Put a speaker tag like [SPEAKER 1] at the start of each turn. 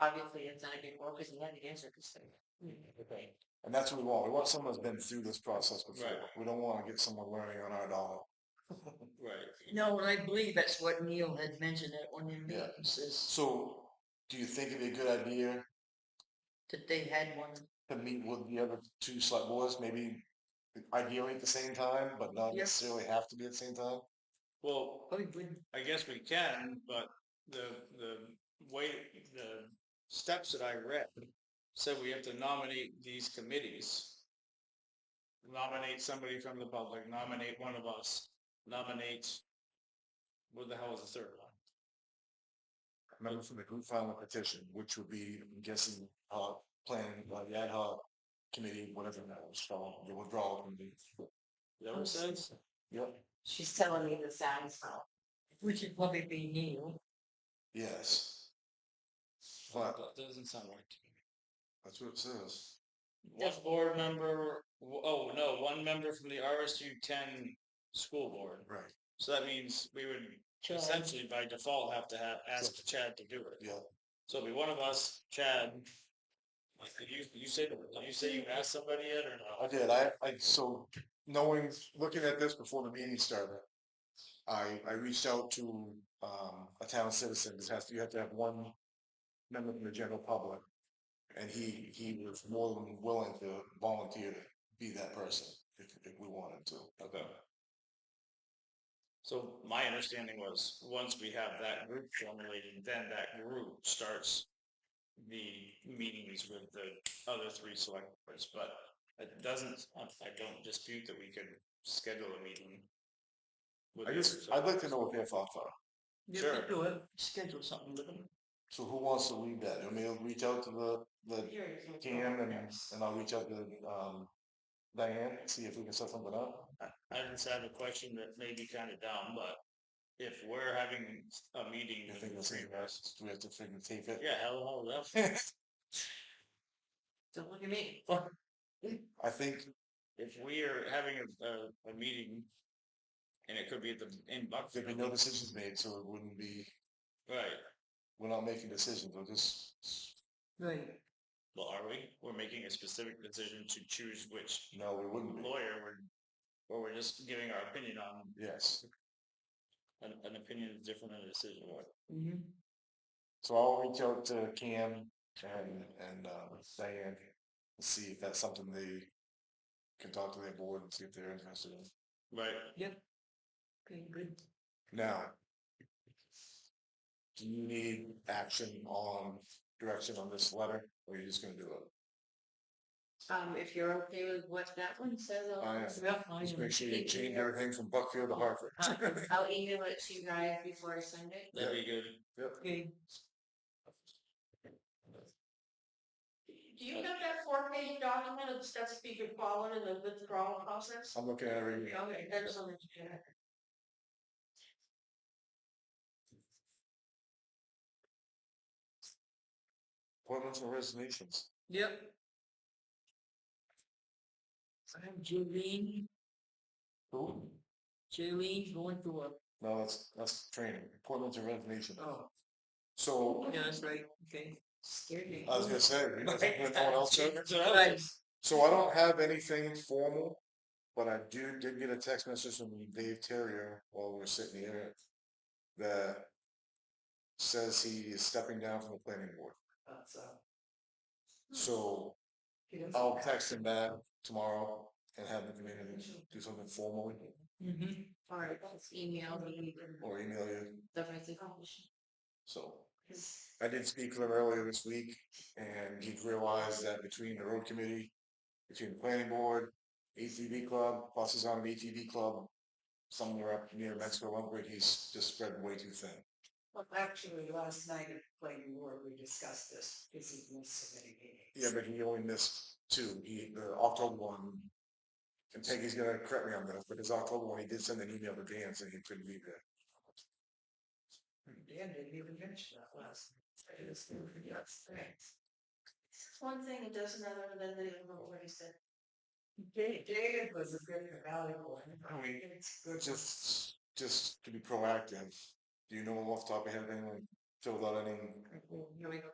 [SPEAKER 1] Obviously, it's not a big role because he had the answer. 'cause they-
[SPEAKER 2] And that's what we want. We want someone that's been through this process before.
[SPEAKER 3] Right.
[SPEAKER 2] We don't want to get someone learning on our dollar.
[SPEAKER 3] Right.
[SPEAKER 1] No, and I believe that's what Neil had mentioned at one of the
[SPEAKER 2] Yeah.
[SPEAKER 1] meetings is
[SPEAKER 2] So, do you think it'd be a good idea
[SPEAKER 1] that they had one.
[SPEAKER 2] to meet with the other two select boards, maybe ideally at the same time, but not
[SPEAKER 1] Yeah.
[SPEAKER 2] necessarily have to be at the same time?
[SPEAKER 3] Well,
[SPEAKER 1] Oh, he wouldn't.
[SPEAKER 3] I guess we can, but the, the way, the steps that I read said we have to nominate these committees. Nominate somebody from the public, nominate one of us, nominate, what the hell is the third one?
[SPEAKER 2] Remember from the group filing a petition, which would be, I'm guessing, uh, planning, uh, the ad hoc committee, whatever that was called, the withdrawal committee.
[SPEAKER 3] Is that what it says?
[SPEAKER 2] Yep,
[SPEAKER 1] She's telling me the sound fell. Which would probably be Neil.
[SPEAKER 2] yes, What?
[SPEAKER 3] That doesn't sound right to me.
[SPEAKER 2] that's what it says.
[SPEAKER 3] One board member, oh, no, one member from the RSU ten school board.
[SPEAKER 2] Right,
[SPEAKER 3] So that means we would essentially by default have to have, ask Chad to do it.
[SPEAKER 2] yeah,
[SPEAKER 3] So it'll be one of us, Chad. Like, did you, you said, did you say you asked somebody yet or
[SPEAKER 2] I
[SPEAKER 3] no?
[SPEAKER 2] did, I, I, so knowing, looking at this before the meeting started, I, I reached out to, um, a town citizen, it has, to- you have to have one member from the general public. And he, he was more than willing to volunteer to be that person if, if we wanted to.
[SPEAKER 3] Okay. So my understanding was, once we have that group formulated, then that group starts the meetings with the other three select boards, but it doesn't, I I don't dispute that we could schedule a meeting. with
[SPEAKER 2] I
[SPEAKER 3] the
[SPEAKER 2] just,
[SPEAKER 3] other
[SPEAKER 2] I'd like
[SPEAKER 3] select
[SPEAKER 2] to know what their thoughts are.
[SPEAKER 1] Yeah,
[SPEAKER 3] Sure.
[SPEAKER 1] we do it. Schedule something with them.
[SPEAKER 2] So who wants to lead that? I mean, I'll reach out to the, the TM and, and I'll reach out to, um, Diane, see if we can set something up.
[SPEAKER 3] I just have a question that may be kind of dumb, but if we're having a meeting
[SPEAKER 2] You
[SPEAKER 3] with
[SPEAKER 2] think
[SPEAKER 3] the
[SPEAKER 2] that's
[SPEAKER 3] three
[SPEAKER 2] something
[SPEAKER 3] of us,
[SPEAKER 2] else? Do we have to freaking tape it?
[SPEAKER 3] yeah, hell, hell, that's
[SPEAKER 1] Don't look at me.
[SPEAKER 2] I think,
[SPEAKER 3] If we are having a, a, a meeting, and it could be at the, in
[SPEAKER 2] there'd
[SPEAKER 3] Buckfield,
[SPEAKER 2] be no decisions made, so it wouldn't be,
[SPEAKER 3] right,
[SPEAKER 2] we're not making decisions, we're just,
[SPEAKER 1] Right.
[SPEAKER 3] well, are we? We're making a specific decision to choose which
[SPEAKER 2] no, we wouldn't be.
[SPEAKER 3] lawyer we're, or we're just giving our opinion on,
[SPEAKER 2] Yes.
[SPEAKER 3] an, an opinion is different than a decision.
[SPEAKER 1] Mhm.
[SPEAKER 2] So I'll reach out to Cam and, and, uh, Diane, and see if that's something they can talk to their board and see if they're interested in.
[SPEAKER 3] Right,
[SPEAKER 1] Okay, good.
[SPEAKER 2] Now, do you need action on, direction on this letter, or are you just gonna do it?
[SPEAKER 1] Um, if you're okay with what that one says, I'll.
[SPEAKER 2] I am. Just make sure you change everything from Buckfield to Hartford.
[SPEAKER 1] I'll- I'll email it to you guys before I send it.
[SPEAKER 3] that'd be good.
[SPEAKER 1] Okay. Do you have that four page document of steps you could follow in the withdrawal process?
[SPEAKER 2] I'm looking at it right now.
[SPEAKER 1] Okay, that's on the.
[SPEAKER 2] appointments and resignations.
[SPEAKER 1] Yep. I'm Jolene, Oh,
[SPEAKER 2] Who?
[SPEAKER 1] Jolene going through a,
[SPEAKER 2] No, that's, that's training, appointments and resignations.
[SPEAKER 1] oh,
[SPEAKER 2] So,
[SPEAKER 1] yeah, that's right, okay. Scared me.
[SPEAKER 2] I was gonna say, you know, if no one else took it.
[SPEAKER 3] That's what I was-
[SPEAKER 2] So I don't have anything formal, but I do, did get a text message from Dave Terrier while we were sitting here that says he is stepping down from the planning board.
[SPEAKER 1] uh, Hmm.
[SPEAKER 2] So I'll text him back tomorrow and have him come in and do something formal
[SPEAKER 1] Mm-hmm, all right, let's email me.
[SPEAKER 2] or email you.
[SPEAKER 1] Definitely accomplish.
[SPEAKER 2] So I did speak with him earlier this week, and he realized that between the road committee, between the planning board, ATV club, buses on an ATV club, somewhere up near Mexico, Lumberton, he's just spread way too thin.
[SPEAKER 4] Well, actually, last night at planning board, we discussed this, this is more submitting meeting.
[SPEAKER 2] Yeah, but he only missed two. He, the October one, and Peggy's gonna correct me on this, but his October one, he did send an email to Dan saying he couldn't be there.
[SPEAKER 4] Dan didn't even mention that last. night. I just knew he got strength.
[SPEAKER 1] One thing it does another, then they don't know what he said.
[SPEAKER 4] Da- David was a very valuable. and
[SPEAKER 2] I mean,
[SPEAKER 4] It's good.
[SPEAKER 2] just, just to be proactive, do you know off the top of your head anyone filled out any
[SPEAKER 4] people, you know,